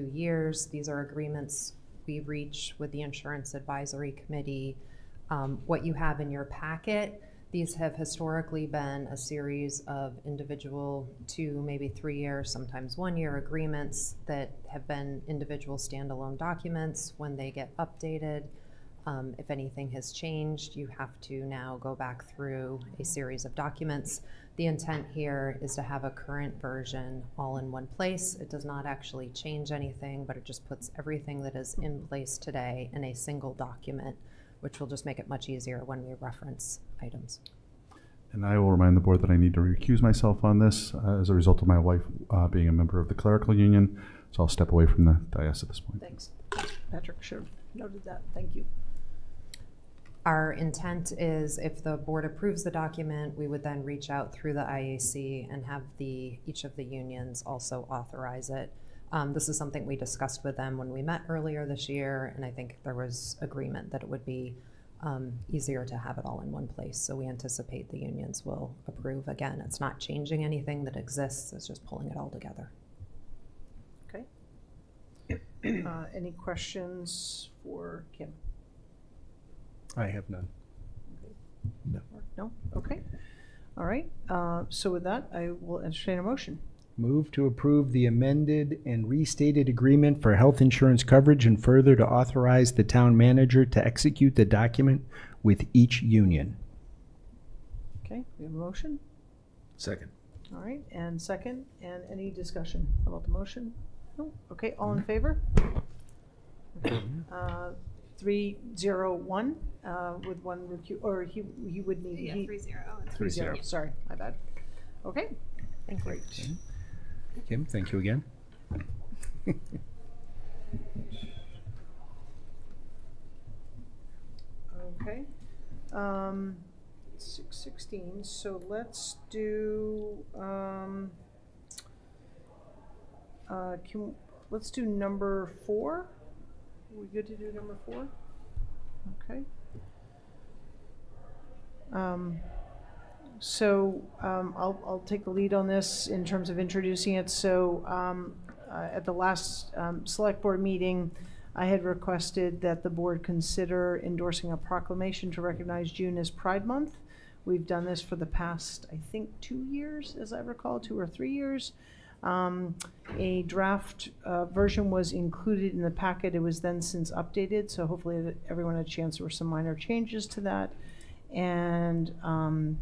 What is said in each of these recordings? two years. These are agreements we reach with the Insurance Advisory Committee. Um, What you have in your packet, these have historically been a series of individual two, maybe three-year, sometimes one-year agreements that have been individual standalone documents. When they get updated, um, if anything has changed, you have to now go back through a series of documents. The intent here is to have a current version all in one place. It does not actually change anything, but it just puts everything that is in place today in a single document, which will just make it much easier when we reference items. And I will remind the board that I need to recuse myself on this uh, as a result of my wife uh, being a member of the clerical union. So I'll step away from the dais at this point. Thanks. Patrick should have noted that. Thank you. Our intent is if the board approves the document, we would then reach out through the IAC and have the, each of the unions also authorize it. Um, this is something we discussed with them when we met earlier this year, and I think there was agreement that it would be, um, easier to have it all in one place. So we anticipate the unions will approve. Again, it's not changing anything that exists, it's just pulling it all together. Okay. Uh, Any questions for Kim? I have none. No. Mark? No? Okay. All right. Uh, So with that, I will entertain a motion. Move to approve the amended and restated agreement for health insurance coverage and further to authorize the town manager to execute the document with each union. Okay, we have a motion. Second. All right, and second, and any discussion about the motion? No? Okay, all in favor? Uh, Three, zero, one, uh, with one recu, or he, he would need. Yeah, he- three zero. Oh, that's three zero, Yeah. sorry, my bad. Okay, Thank you. great. Kim, thank you again. Okay. Um, six sixteen, so let's do, um, uh, can, let's do number four. We good to do number four? Okay. Um, so, um, I'll, I'll take the lead on this in terms of introducing it. So, um, uh, at the last, um, select board meeting, I had requested that the board consider endorsing a proclamation to recognize June as Pride Month. We've done this for the past, I think, two years, as I recall, two or three years. Um, a draft, uh, version was included in the packet. It was then since updated, so hopefully that everyone had a chance. There were some minor changes to that. And, um,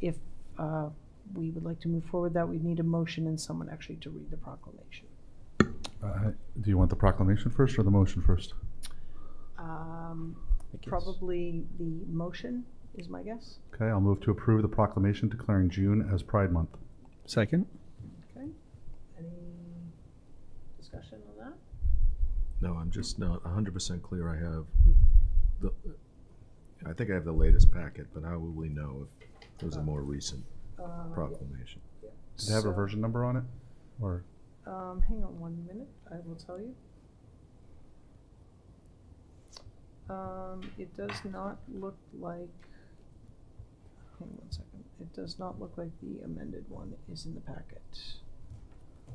if, uh, we would like to move forward that, we'd need a motion and someone actually to read the proclamation. Uh, do you want the proclamation first or the motion first? Um, Probably the motion is my guess. Okay, I'll move to approve the proclamation declaring June as Pride Month. Second? Okay. Any discussion on that? No, I'm just not hundred percent clear. I have the, I think I have the latest packet, but how will we know if there's a more recent proclamation? Does it have a version number on it? Or Um, hang on one minute, I will tell you. Um, it does not look like, hang on one second, it does not look like the amended one is in the packet.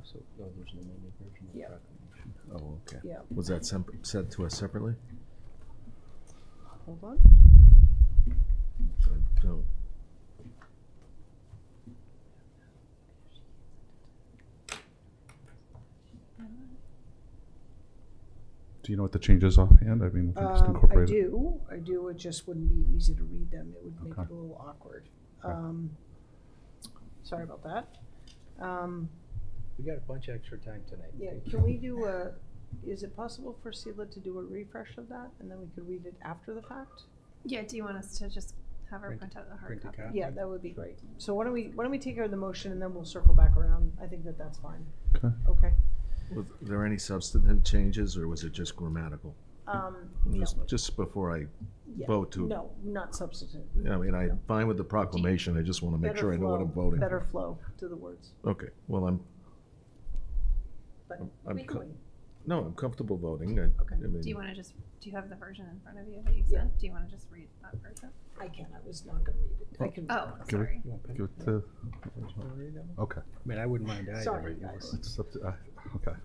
So, oh, no, there's an amended version the Yeah. Oh, okay. Yeah, Was that sem- said to us separately? hold on. I don't. do you know what the changes offhand? I mean, we can just Um, I incorporate it. do, I do, it just wouldn't be easy to read them, it would make Okay. it a little awkward. Okay. Um, sorry about that. Um, We got a bunch of extra time tonight. yeah, can we do a, is it possible for Sela to do a refresh of that, and then we could read it after the fact? Yeah, do you want us to just have her Print- print out the hard print a copy? copy. Yeah, that would be great. So why don't we, why don't we take care of the motion and then we'll circle back around? I think that that's fine. Okay. Okay. Was there any substantive changes or was it just grammatical? Um, no, Just- Just before I, yeah. vote to- No, not substantive. I mean, I'm No. fine with the proclamation. I just want to make Better sure I know what flow- I'm voting. Better for. flow to the words, Okay, well, I'm, but I'm- we I'm can co- wait. no, I'm comfortable voting. I- Okay. I mean- Do you want to just, do you have the version in front of you that you Yeah. sent? Do you want to just read that version? I can, I was not gonna read it. I Oh. can. Oh, Give it- sorry. You want pen? Give it to, You wanna read that one? okay. I mean, I wouldn't mind either. Sorry, but you guys. want- It's up to, uh, okay.